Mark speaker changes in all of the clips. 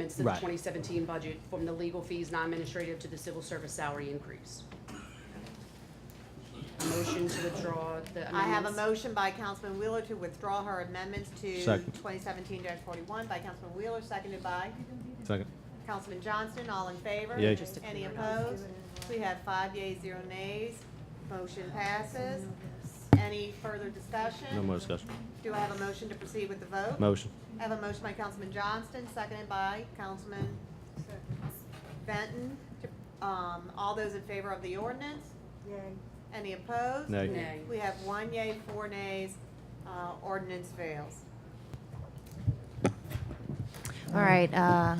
Speaker 1: amendments to the
Speaker 2: Right.
Speaker 1: twenty seventeen budget, from the legal fees, non-administrative to the civil service salary increase. A motion to withdraw the amendments.
Speaker 3: I have a motion by Councilman Wheeler to withdraw her amendments to
Speaker 2: Second.
Speaker 3: twenty seventeen forty-one by Councilman Wheeler, seconded by
Speaker 2: Second.
Speaker 3: Councilman Johnston, all in favor?
Speaker 2: Yea. Just
Speaker 1: a
Speaker 3: Any
Speaker 1: few.
Speaker 3: opposed? We have five yeas, zero nays. Motion passes. Any further discussion?
Speaker 2: No more discussion.
Speaker 3: Do I have a motion to proceed with the vote?
Speaker 2: Motion.
Speaker 3: I have a motion by Councilman Johnston, seconded by Councilman Benton. To- Um, all those in favor of the ordinance?
Speaker 4: Yay.
Speaker 3: Any opposed?
Speaker 2: Nay.
Speaker 1: Nay.
Speaker 3: We have one yay, four nays, uh, ordinance fails.
Speaker 5: All right, uh,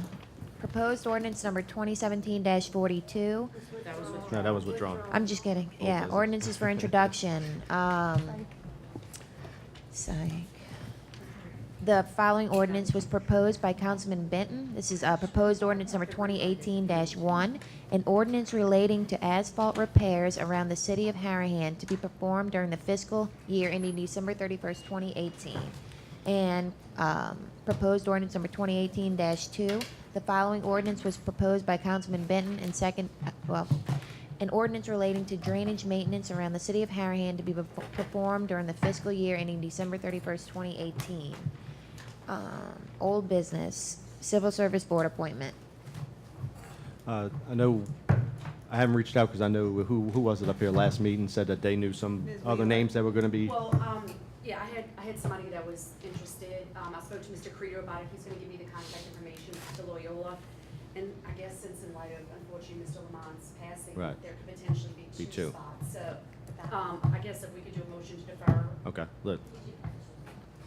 Speaker 5: proposed ordinance number 2017-42.
Speaker 1: That was withdrawn.
Speaker 2: No, that was withdrawn.
Speaker 5: I'm just kidding.
Speaker 2: Old
Speaker 5: Yeah,
Speaker 2: business.
Speaker 5: ordinances for introduction. Um, psych. The following ordinance was proposed by Councilman Benton. This is, uh, proposed ordinance number twenty eighteen one, an ordinance relating to asphalt repairs around the city of Harahan to be performed during the fiscal year ending December thirty-first, twenty eighteen. And, um, proposed ordinance number twenty eighteen two. The following ordinance was proposed by Councilman Benton and second, uh, well, an ordinance relating to drainage maintenance around the city of Harahan to be bef- performed during the fiscal year ending December thirty-first, twenty eighteen. Um, old business, civil service board appointment.
Speaker 2: Uh, I know, I haven't reached out because I know who, who was it up here last meeting said that they knew some
Speaker 3: Ms.
Speaker 2: other
Speaker 3: Wheeler.
Speaker 2: names that were going to be.
Speaker 1: Well, um, yeah, I had, I had somebody that was interested, um, I spoke to Mr. Credo about it, he's gonna give me the contact information to Loyola. And I guess since in light of unfortunately Mr. Lamont's passing,
Speaker 2: Right.
Speaker 1: there could potentially
Speaker 2: Be
Speaker 1: be
Speaker 2: two.
Speaker 1: two spots, so, um, I guess if we could do a motion to defer,
Speaker 2: Okay, look,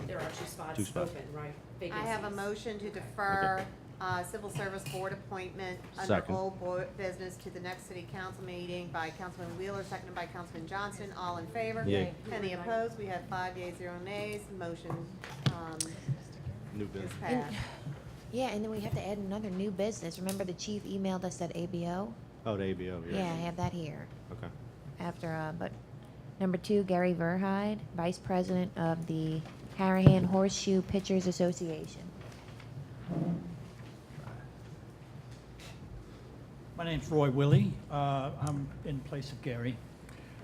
Speaker 1: there are two spots
Speaker 2: Two spots.
Speaker 1: open, right?
Speaker 3: I have a
Speaker 1: Vacancies.
Speaker 3: motion to defer, uh, civil service board appointment under
Speaker 2: Second.
Speaker 3: old board business to the next city council meeting by Councilman Wheeler, seconded by Councilman Johnston, all in favor?
Speaker 2: Yea.
Speaker 3: Any opposed? We have five yeas, zero nays, motion, um,
Speaker 2: new
Speaker 3: is
Speaker 2: business.
Speaker 3: passed.
Speaker 5: Yeah, and then we have to add another new business. Remember the chief emailed us that ABO?
Speaker 2: Oh, the ABO, yeah.
Speaker 5: Yeah, I have that here
Speaker 2: Okay.
Speaker 5: after, uh, but number two, Gary Verhide, vice president of the Harahan Horseshoe Pitchers Association.
Speaker 6: My name's Roy Willie. Uh, I'm in place of Gary.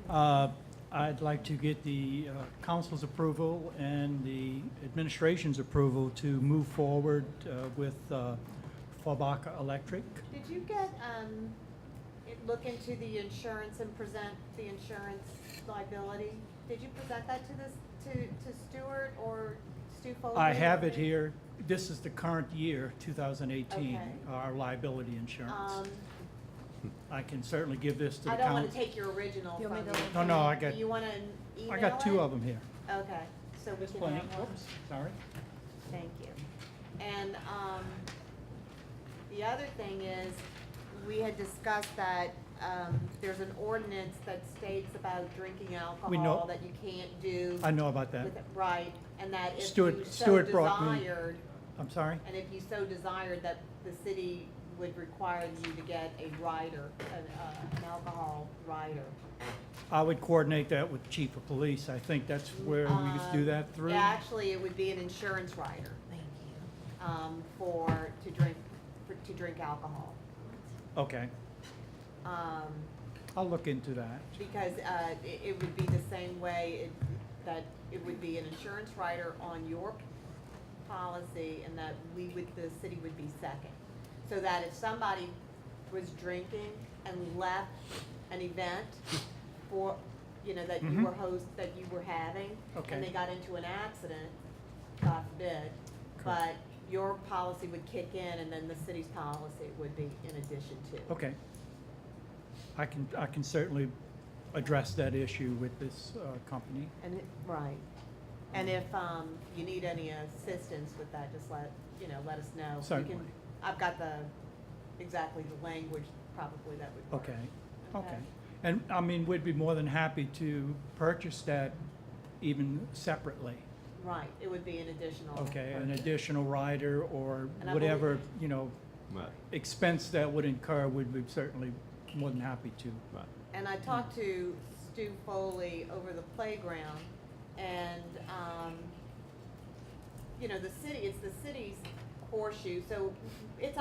Speaker 6: Uh, I'd like to get the uh, council's approval and the administration's approval to move forward uh, with uh, Faubaca Electric.
Speaker 3: Did you get, um, it- look into the insurance and present the insurance liability? Did you present that to this, to, to Stewart or Stu Foley?
Speaker 6: I have it here. This is the current year, 2018,
Speaker 3: Okay.
Speaker 6: our liability
Speaker 3: Um,
Speaker 6: insurance. I can certainly give this to the
Speaker 3: I
Speaker 6: council.
Speaker 3: don't wanna take your original
Speaker 4: You
Speaker 3: from
Speaker 4: want me to
Speaker 3: you.
Speaker 4: look
Speaker 6: No, no, I got,
Speaker 3: You wanna email it?
Speaker 6: I got two of them here.
Speaker 3: Okay, so we
Speaker 6: There's
Speaker 3: can
Speaker 6: plenty.
Speaker 3: have one,
Speaker 6: Oops, sorry.
Speaker 3: thank you. And, um, the other thing is, we had discussed that, um, there's an ordinance that states about drinking alcohol that you can't do.
Speaker 6: I know about that.
Speaker 3: with it, Right, and that if
Speaker 6: Stuart-
Speaker 3: you so
Speaker 6: Stuart brought me-
Speaker 3: desired,
Speaker 6: I'm sorry?
Speaker 3: and if you so desired, that the city would require you to get a rider, an, uh, an alcohol rider.
Speaker 6: I would coordinate that with chief of police. I think that's where we could do
Speaker 3: Um,
Speaker 6: that through.
Speaker 3: yeah, Actually, it would be an insurance rider,
Speaker 5: Thank you.
Speaker 3: um, for, to drink, for, to drink alcohol.
Speaker 6: Okay,
Speaker 3: Um,
Speaker 6: I'll look into that.
Speaker 3: because, uh, it, it would be the same way it- that it would be an insurance rider on your policy and that we would, the city would be second. So that if somebody was drinking and left an event for, you know, that you
Speaker 6: Mhm.
Speaker 3: were host, that you were having,
Speaker 6: Okay.
Speaker 3: and they got into an accident, God forbid, but
Speaker 6: Correct.
Speaker 3: your policy would kick in and then the city's policy would be in addition to.
Speaker 6: Okay. I can, I can certainly address that issue with this uh, company.
Speaker 3: And, it- right. And if, um, you need any assistance with that, just let, you know, let us know. We can-
Speaker 6: Certainly.
Speaker 3: I've got the, exactly the language probably that would work.
Speaker 6: Okay, okay.
Speaker 3: Okay.
Speaker 6: And, I mean, we'd be more than happy to purchase that even separately.
Speaker 3: Right, it would be an additional.
Speaker 6: Okay, an
Speaker 3: purchase.
Speaker 6: additional rider or
Speaker 3: And I believe-
Speaker 6: whatever, you know,
Speaker 2: Right,
Speaker 6: expense that would incur, we'd be certainly more than happy to.
Speaker 2: right.
Speaker 3: And I talked to Stu Foley over the playground, and, um, you know, the city, it's the city's horseshoe, so it's